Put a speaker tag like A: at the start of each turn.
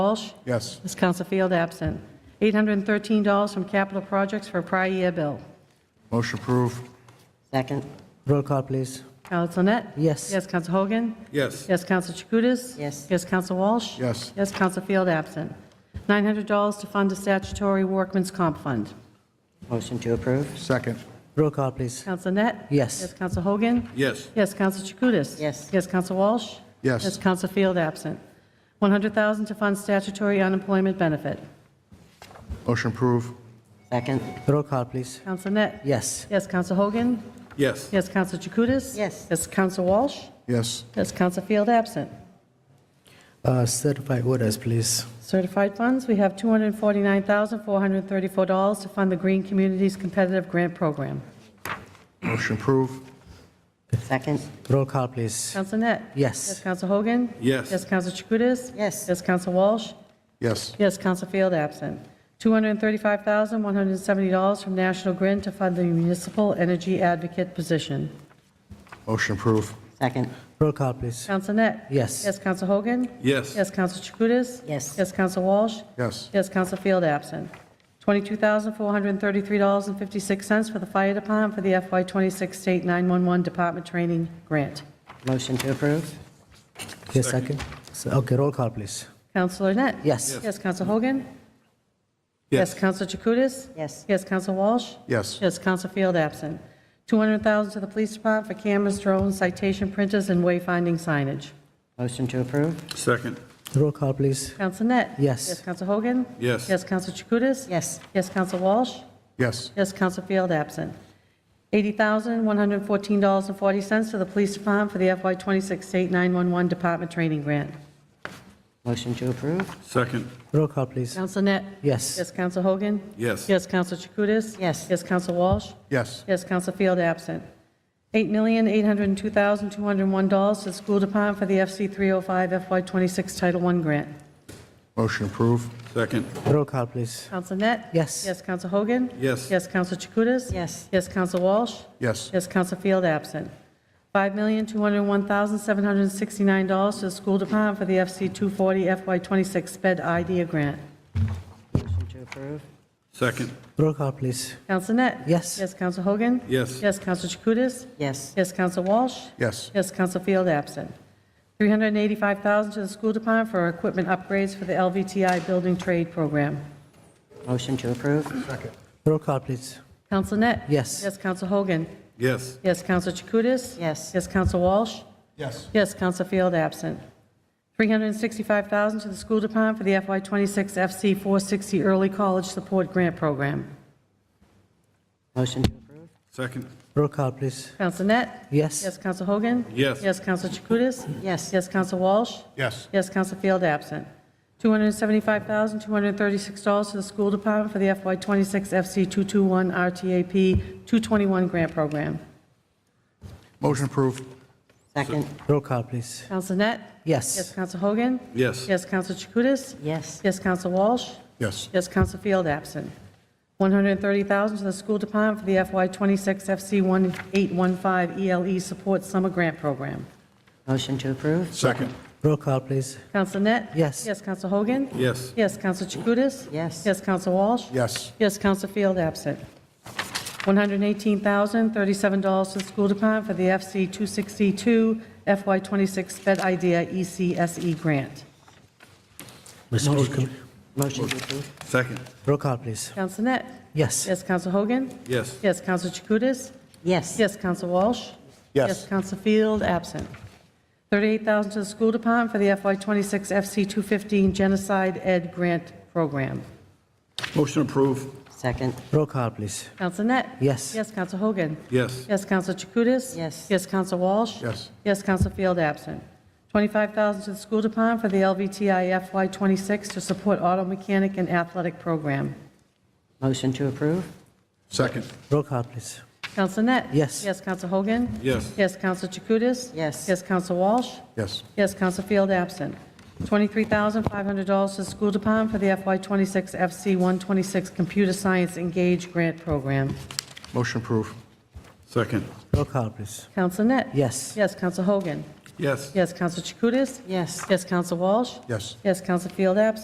A: Walsh.
B: Yes.
A: Ms. Council Field absent. $813 from capital projects for prior year bill.
B: Motion approved.
C: Second.
D: Roll call, please.
A: Council Net?
D: Yes.
A: Yes, Council Hogan?
B: Yes.
A: Yes, Council Chakutis?
C: Yes.
A: Yes, Council Walsh?
B: Yes.
A: Yes, Council Field absent. $900 to fund a statutory workman's comp fund.
C: Motion to approve.
B: Second.
D: Roll call, please.
A: Council Net?
D: Yes.
A: Yes, Council Hogan?
B: Yes.
A: Yes, Council Chakutis?
C: Yes.
A: Yes, Council Walsh?
B: Yes.
A: Yes, Council Field absent. $100,000 to fund statutory unemployment benefit.
B: Motion approved.
C: Second.
D: Roll call, please.
A: Council Net?
D: Yes.
A: Yes, Council Hogan?
B: Yes.
A: Yes, Council Chakutis?
C: Yes.
A: Yes, Council Walsh?
B: Yes.
A: Yes, Council Field absent.
D: Uh, Certified orders, please.
A: Certified funds, we have $249,434 to fund the Green Communities Competitive Grant Program.
B: Motion approved.
C: Second.
D: Roll call, please.
A: Counsel Net?
D: Yes.
A: Yes, Counsel Hogan?
B: Yes.
A: Yes, Counsel Chakutis?
C: Yes.
A: Yes, Counsel Walsh?
B: Yes.
A: Yes, Counsel Field absent. $235,170 from National Grid to fund the Municipal Energy Advocate position.
B: Motion approved.
C: Second.
D: Roll call, please.
A: Counsel Net?
D: Yes.
A: Yes, Counsel Hogan?
B: Yes.
A: Yes, Counsel Chakutis?
C: Yes.
A: Yes, Counsel Walsh?
B: Yes.
A: Yes, Counsel Field absent. $22,433.56 for the Fire Department for the FY26 State 911 Department Training Grant.
C: Motion to approve.
D: Yes, second. So- Okay, roll call, please.
A: Counselor Net?
D: Yes.
A: Yes, Counsel Hogan? Yes, Counsel Chakutis?
C: Yes.
A: Yes, Counsel Walsh?
B: Yes.
A: Yes, Counsel Field absent. $200,000 to the Police Department for cameras, drones, citation printers, and wayfinding signage.
C: Motion to approve.
B: Second.
D: Roll call, please.
A: Counsel Net?
D: Yes.
A: Yes, Counsel Hogan?
B: Yes.
A: Yes, Counsel Chakutis?
C: Yes.
A: Yes, Counsel Walsh?
B: Yes.
A: Yes, Counsel Field absent. $80,114.40 to the Police Department for the FY26 State 911 Department Training Grant.
C: Motion to approve.
B: Second.
D: Roll call, please.
A: Counsel Net?
D: Yes.
A: Yes, Counsel Hogan?
B: Yes.
A: Yes, Counsel Chakutis?
C: Yes.
A: Yes, Counsel Walsh?
B: Yes.
A: Yes, Counsel Field absent. $8,802,201 to the School Department for the FC 305 FY26 Title I Grant.
B: Motion approved. Second.
D: Roll call, please.
A: Counsel Net?
D: Yes.
A: Yes, Counsel Hogan?
B: Yes.
A: Yes, Counsel Chakutis?
C: Yes.
A: Yes, Counsel Walsh?
B: Yes.
A: Yes, Counsel Field absent. $5,201,769 to the School Department for the FC 240 FY26 Sped Idea Grant.
C: Motion to approve.
B: Second.
D: Roll call, please.
A: Counsel Net?
D: Yes.
A: Yes, Counsel Hogan?
B: Yes.
A: Yes, Counsel Chakutis?
C: Yes.
A: Yes, Counsel Walsh?
B: Yes.
A: Yes, Counsel Field absent. $385,000 to the School Department for equipment upgrades for the LVTI Building Trade Program.
C: Motion to approve.
D: Roll call, please.
A: Counsel Net?
D: Yes.
A: Yes, Counsel Hogan?
B: Yes.
A: Yes, Counsel Chakutis?
C: Yes.
A: Yes, Counsel Walsh?
B: Yes.
A: Yes, Counsel Field absent. $365,000 to the School Department for the FY26 FC 460 Early College Support Grant Program.
C: Motion to approve.
B: Second.
D: Roll call, please.
A: Counsel Net?
D: Yes.
A: Yes, Counsel Hogan?
B: Yes.
A: Yes, Counsel Chakutis?
C: Yes.
A: Yes, Counsel Walsh?
B: Yes.
A: Yes, Counsel Field absent. $275,236 to the School Department for the FY26 FC221 RTAP 221 Grant Program.
B: Motion approved.
C: Second.
D: Roll call, please.
A: Counsel Net? Yes,
D: Yes.
A: Counsel Hogan?
B: Yes.
A: Yes, Counsel Chakutis?
C: Yes.
A: Yes, Counsel Walsh?
B: Yes.
A: Yes, Counsel Field absent. $130,000 to the School Department for the FY26 FC1815 ELE E Support Summer Grant Program.
C: Motion to approve.
B: Second.
D: Roll call, please.
A: Counsel Net?
D: Yes.
A: Yes, Counsel Hogan?
B: Yes.
A: Yes, Counsel Chakutis?
C: Yes.
A: Yes, Counsel Walsh?
B: Yes.
A: Yes, Counsel Field absent. $118,037 to the School Department for the FC262 FY26 Sped Idea E ECSE Grant.
D: Mr.
C: Motion to approve.
B: Second.
D: Roll call, please.
A: Counsel Net?
D: Yes.
A: Yes, Counsel Hogan?
B: Yes.
A: Yes, Counsel Chakutis?
C: Yes.
A: Yes, Counsel Walsh?
B: Yes.
A: Yes, Counsel Field, absent. $38,000 to the School Department for the FY26 FC215 Genocide Ed Grant Program.
B: Motion approved.
C: Second.
D: Roll call, please.
A: Counsel Net?
D: Yes.
A: Yes, Counsel Hogan?
B: Yes.
A: Yes, Counsel Chakutis?
C: Yes.
A: Yes, Counsel Walsh?
B: Yes.
A: Yes, Counsel Field, absent. $25,000 to the School Department for the LVTI FY26 to support auto mechanic and athletic program.
C: Motion to approve.
B: Second.
D: Roll call, please.
A: Counsel Net?
D: Yes.
A: Yes, Counsel Hogan?
B: Yes.
A: Yes, Counsel Chakutis?
C: Yes.
A: Yes, Counsel Walsh?
B: Yes.
A: Yes, Counsel Field absent. $23,500 to the School Department for the FY26 FC126 Computer Science Engage Grant Program.
B: Motion approved. Second.
D: Roll call, please.
A: Counsel Net?
D: Yes.
A: Yes, Counsel Hogan?
B: Yes.
A: Yes, Counsel Chakutis?
C: Yes.
A: Yes, Counsel Walsh?
B: Yes.
A: Yes, Counsel Field absent.